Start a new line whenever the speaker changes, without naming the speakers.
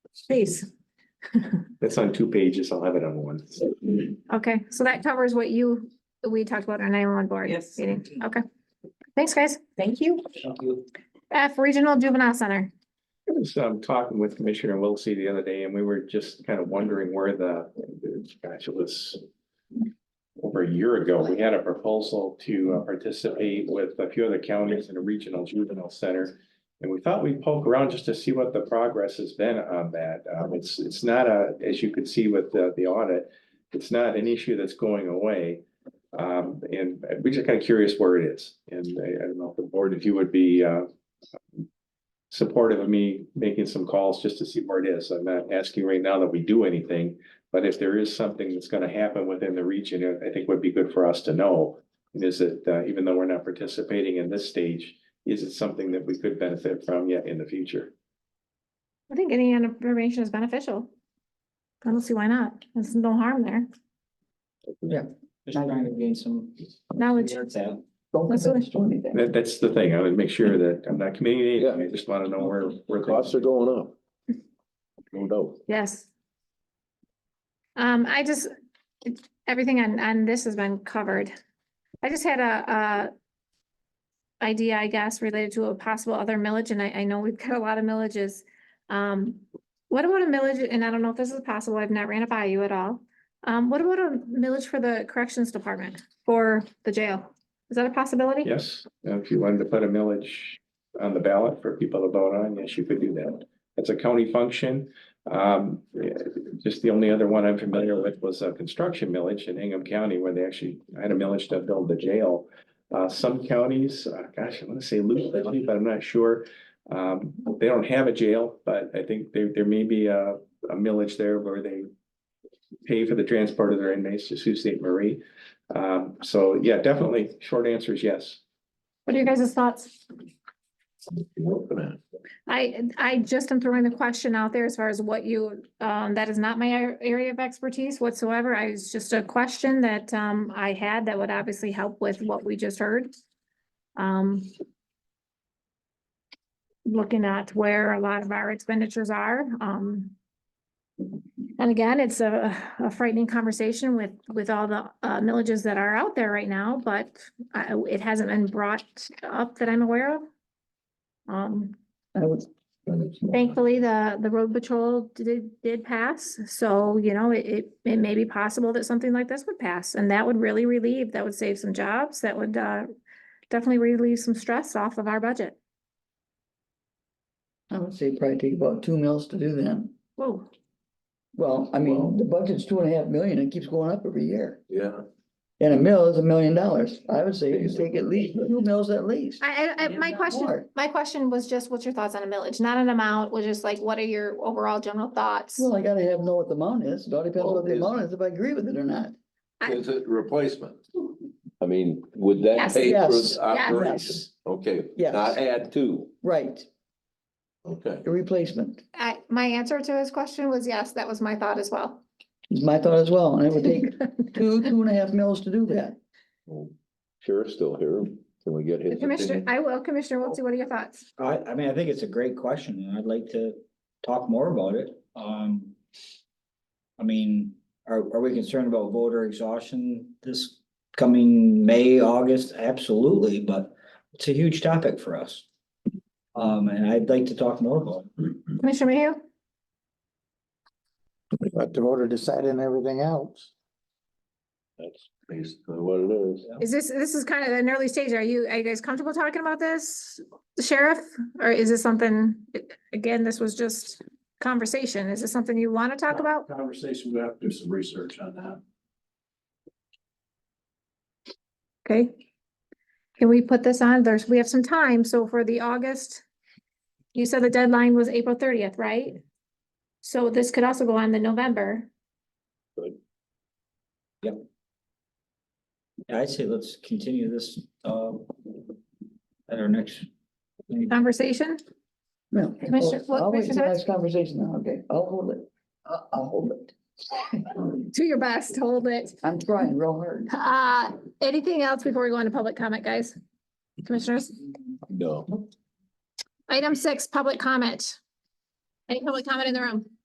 Jeez.
That's on two pages. I'll have it on one.
Okay, so that covers what you, we talked about on nine one board.
Yes.
meeting. Okay. Thanks, guys.
Thank you.
F Regional Juvenile Center.
I was um talking with Commissioner Wiltsey the other day and we were just kind of wondering where the, gosh, it was. Over a year ago, we had a proposal to uh, participate with a few other counties in a regional juvenile center. And we thought we'd poke around just to see what the progress has been on that. Um, it's, it's not a, as you could see with the, the audit. It's not an issue that's going away. Um, and we're just kind of curious where it is. And I, I don't know if the board, if you would be, uh, supportive of me making some calls just to see where it is. I'm not asking right now that we do anything. But if there is something that's gonna happen within the region, I- I think would be good for us to know. And is it, uh, even though we're not participating in this stage, is it something that we could benefit from yet in the future?
I think any information is beneficial. I don't see why not. There's no harm there.
Just trying to gain some.
Knowledge. Let's do it.
That, that's the thing. I would make sure that I'm not committing anything. I just wanna know where, where.
Costs are going up. No doubt.
Yes. Um, I just, it- everything on, on this has been covered. I just had a, a idea, I guess, related to a possible other millage, and I, I know we've got a lot of millages. Um, what about a millage, and I don't know if this is possible, I've not ran it by you at all. Um, what about a millage for the corrections department, for the jail? Is that a possibility?
Yes, uh, if you wanted to put a millage on the ballot for people to vote on, yes, you could do that. It's a county function. Um, yeah, just the only other one I'm familiar with was a construction millage in Hingham County where they actually had a millage to build the jail. Uh, some counties, uh, gosh, I want to say Luke, but I'm not sure. Um, they don't have a jail, but I think there, there may be a, a millage there where they pay for the transport of their inmates to Sault Ste. Marie. Um, so yeah, definitely, short answer is yes.
What are you guys' thoughts?
You're open at.
I, I just am throwing the question out there as far as what you, um, that is not my ar- area of expertise whatsoever. I was just a question that, um, I had that would obviously help with what we just heard. Um. Looking at where a lot of our expenditures are, um. And again, it's a, a frightening conversation with, with all the, uh, millages that are out there right now, but, uh, it hasn't been brought up that I'm aware of. Um, Thankfully, the, the road patrol did, did pass, so, you know, it, it, it may be possible that something like this would pass, and that would really relieve, that would save some jobs, that would, uh, definitely relieve some stress off of our budget.
I would say probably take about two mills to do that.
Whoa,
Well, I mean, the budget's two and a half million, it keeps going up every year.
Yeah.
And a mill is a million dollars. I would say you take at least two mills at least.
I, I, I,
Yeah,
my
not
question,
more.
my question was just, what's your thoughts on a millage, not an amount, was just like, what are your overall general thoughts?
Well, I gotta have know what the amount is. It all depends
Well,
what the
is-
amount is, if I agree with it or not.
I-
Is it replacement? I mean, would that
Yes.
pay for
Yes.
the operation? Okay,
Yes.
not add to,
Right,
okay.
a replacement
I, my answer to his question was yes, that was my thought as well.
is my thought as well, and it would take two, two and a half mills to do that.
Sheriff's still here, can we get his
Commissioner,
opinion?
I will, Commissioner Wiltie, what are your thoughts?
I, I mean, I think it's a great question and I'd like to talk more about it. Um. I mean, are, are we concerned about voter exhaustion this coming May, August? Absolutely, but it's a huge topic for us. Um, and I'd like to talk more about it.
Commissioner Mayhew?
Let the voter decide on everything else.
That's basically what it is.
Is this, this is kind of an early stage. Are you, are you guys comfortable talking about this, Sheriff? Or is this something, again, this was just conversation. Is this something you want to talk about?
Conversation, we have to do some research on that.
Okay. Can we put this on? There's, we have some time. So for the August, you said the deadline was April thirtieth, right? So this could also go on the November.
I'd say let's continue this, uh. At our next.
Conversation?
No.
Commissioner- what,
I'll wait
Commissioner
till
Hurst?
next Conversation now, okay, I'll hold it. I'll, I'll hold it.
Do your best, hold it.
I'm trying real hard.
Uh, anything else before we go into public comment, guys? Commissioners?
No.
Item six, public comment. Any public comment in the room?